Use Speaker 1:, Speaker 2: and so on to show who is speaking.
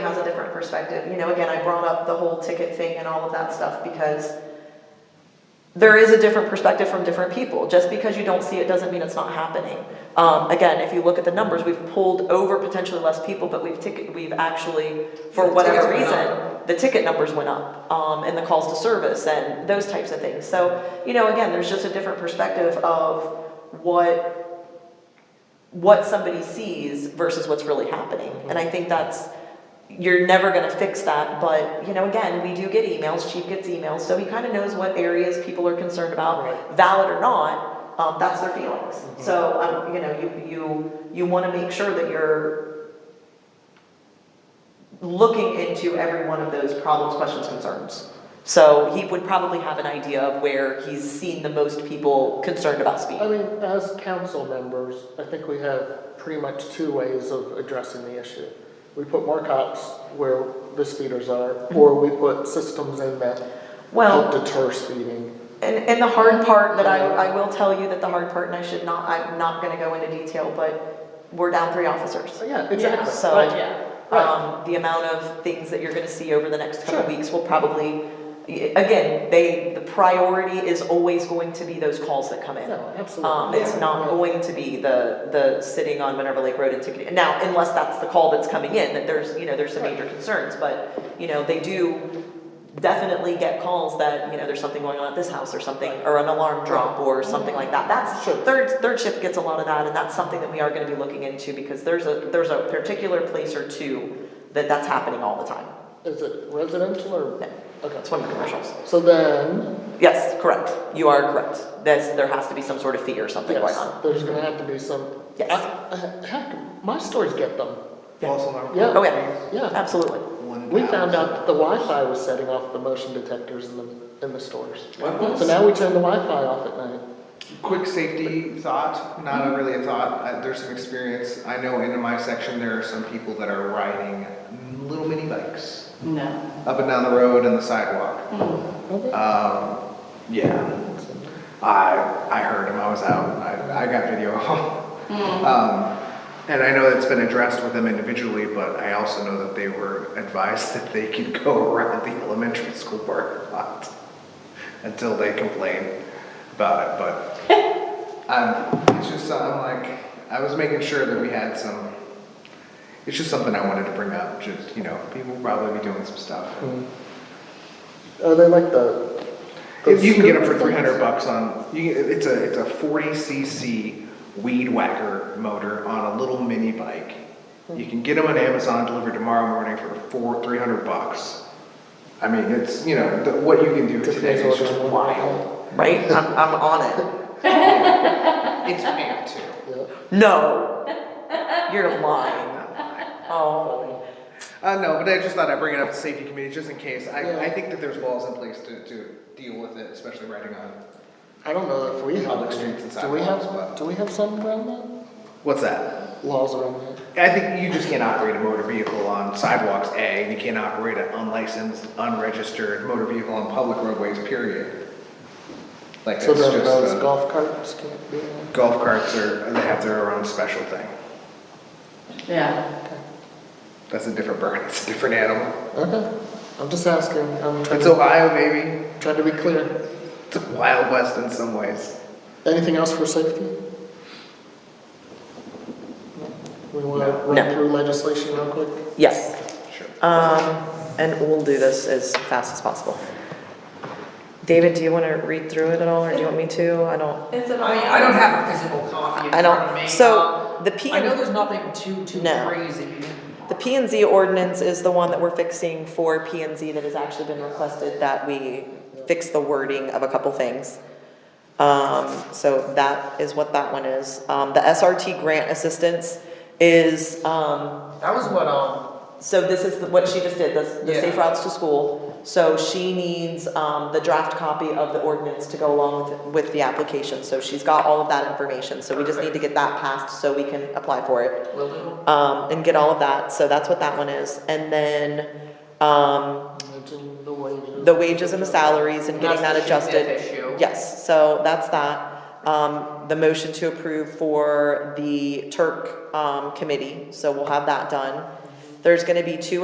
Speaker 1: different perspective. You know, again, I brought up the whole ticket thing and all of that stuff because there is a different perspective from different people. Just because you don't see it doesn't mean it's not happening. Um, again, if you look at the numbers, we've pulled over potentially less people, but we've ticket, we've actually, for
Speaker 2: The
Speaker 1: whatever
Speaker 2: tickets went
Speaker 1: reason,
Speaker 2: up.
Speaker 1: the ticket numbers went up, um, and the calls to service and those types of things. So, you know, again, there's just a different perspective of what, what somebody sees versus what's really happening. And I think that's, you're never gonna fix that, but, you know, again, we do get emails, chief gets emails, so he kinda knows what areas people are concerned about,
Speaker 2: Right.
Speaker 1: valid or not, um, that's their feelings. So, um, you know, you, you, you wanna make sure that you're looking into every one of those problems, questions, concerns. So he would probably have an idea of where he's seen the most people concerned about speed.
Speaker 3: I mean, as council members, I think we have pretty much two ways of addressing the issue. We put more cops where the speeders are, or we put systems in that help
Speaker 1: Mm-hmm. Well,
Speaker 3: deter speeding.
Speaker 1: and, and the hard part that I, I will tell you that the hard part, and I should not, I'm not gonna go into detail, but we're down three officers.
Speaker 3: So, Yeah, exactly.
Speaker 1: So,
Speaker 3: Right. Right.
Speaker 1: um, the amount of things that you're gonna see over the next couple
Speaker 3: Sure.
Speaker 1: weeks will probably, y- again, they, the priority is always going to be those calls that come in.
Speaker 3: No, absolutely.
Speaker 1: Um, it's
Speaker 3: Yeah.
Speaker 1: not going to be the, the sitting on Minerva Lake Road and ticketing, now, unless that's the call that's coming in, that there's, you know, there's some
Speaker 3: Right.
Speaker 1: major concerns, but, you know, they do definitely get calls that, you know, there's something going on at this house or something, or an alarm drop or something like that, that's,
Speaker 3: Sure.
Speaker 1: third, third shift gets a lot of that, and that's something that we are gonna be looking into, because there's a, there's a particular place or two that that's happening all the time,
Speaker 3: Is it residential or?
Speaker 1: No.
Speaker 3: Okay.
Speaker 1: that's one of the commercials.
Speaker 3: So then,
Speaker 1: Yes, correct, you are correct, that's, there has to be some sort of fee or something going
Speaker 3: yes,
Speaker 1: on.
Speaker 3: there's gonna have to be some.
Speaker 1: Yes.
Speaker 3: I- I- Heck, my stores get them.
Speaker 4: Also, our
Speaker 3: Yeah.
Speaker 1: Oh, yeah,
Speaker 3: Yeah.
Speaker 1: absolutely.
Speaker 4: one
Speaker 3: We
Speaker 4: thousand.
Speaker 3: found out that the Wi-Fi was setting off the motion detectors in the, in the stores.
Speaker 4: What was-
Speaker 3: So now we turn the Wi-Fi off at night.
Speaker 4: Quick safety thought, not a really a thought, uh, there's some experience, I know in my section, there are some people that are riding little mini bikes
Speaker 2: No.
Speaker 4: up and down the road and the sidewalk. Um, yeah, I, I heard them, I was out, I, I got video. Um, and I know it's been addressed with them individually, but I also know that they were advised that they can go around the elementary school parking lot until they complain about it, but Um, it's just something like, I was making sure that we had some, it's just something I wanted to bring up, just, you know, people will probably be doing some stuff.
Speaker 3: Are Uh, they like the?
Speaker 4: If you can get them for
Speaker 3: those-
Speaker 4: three hundred bucks on, you, can- it's a, it's a forty cc weed whacker motor on a little mini bike. You can get them on Amazon delivered tomorrow morning for four, three hundred bucks. I mean, it's, you know, the- what you can do
Speaker 3: Just
Speaker 4: today is
Speaker 3: order
Speaker 4: just
Speaker 3: one.
Speaker 4: wild.
Speaker 1: Right? I'm, I'm on it.
Speaker 4: It's amped to.
Speaker 3: Yeah.
Speaker 1: No. You're lying. Oh.
Speaker 4: Uh, no, but I just thought I'd bring it up to safety committee just in case. I,
Speaker 3: Yeah.
Speaker 4: I think that there's laws in place to, to deal with it, especially riding on.
Speaker 3: I don't know if we have.
Speaker 4: Public streets and
Speaker 3: Do we have,
Speaker 4: sidewalks, but-
Speaker 3: do we have some around that?
Speaker 4: What's that?
Speaker 3: Laws around that?
Speaker 4: I think you just can't operate a motor vehicle on sidewalks, A, and you can't operate an unlicensed, unregistered motor vehicle on public roadways, period. Like, that's
Speaker 3: So
Speaker 4: just,
Speaker 3: then those
Speaker 4: uh,
Speaker 3: golf carts can't be, in?
Speaker 4: golf carts are, they have their own special thing.
Speaker 2: Yeah.
Speaker 4: That's a different bird, it's a different animal.
Speaker 3: okay, I'm just asking, I'm trying
Speaker 4: It's
Speaker 3: to,
Speaker 4: Ohio, baby.
Speaker 3: trying to be clear.
Speaker 4: It's a wild west in some ways.
Speaker 3: Anything else for safety? We wanna
Speaker 1: No.
Speaker 3: run through legislation real quick?
Speaker 1: Yes.
Speaker 4: Sure.
Speaker 1: Um, and we'll do this as fast as possible. David, do you want to read through it at all, or do you want me to? I don't.
Speaker 2: It's a.
Speaker 5: I mean, I don't have a physical copy in
Speaker 1: I
Speaker 5: front of me. Um,
Speaker 1: don't. So the P
Speaker 5: I know
Speaker 1: and,
Speaker 5: there's nothing too, too
Speaker 1: No.
Speaker 5: crazy.
Speaker 1: the P and Z ordinance is the one that we're fixing for P and Z that has actually been requested that we fix the wording of a couple things. Um, so that is what that one is. Um, the SRT grant assistance is, um,
Speaker 5: That was what, um,
Speaker 1: So this is the- what she just did, this, the safe
Speaker 5: Yeah.
Speaker 1: routes to school. So she needs, um, the draft copy of the ordinance to go along with, with the application. So she's got all of that information, so we just need to get that passed so we can apply for it
Speaker 5: Will do.
Speaker 1: um, and get all of that. So that's what that one is. And then um,
Speaker 3: Imagine the wages.
Speaker 1: the wages and the salaries and getting that
Speaker 5: That's the
Speaker 1: adjusted.
Speaker 5: Smith issue.
Speaker 1: Yes, so that's that. Um, the motion to approve for the Turk, um, committee, so we'll have that done. There's gonna be two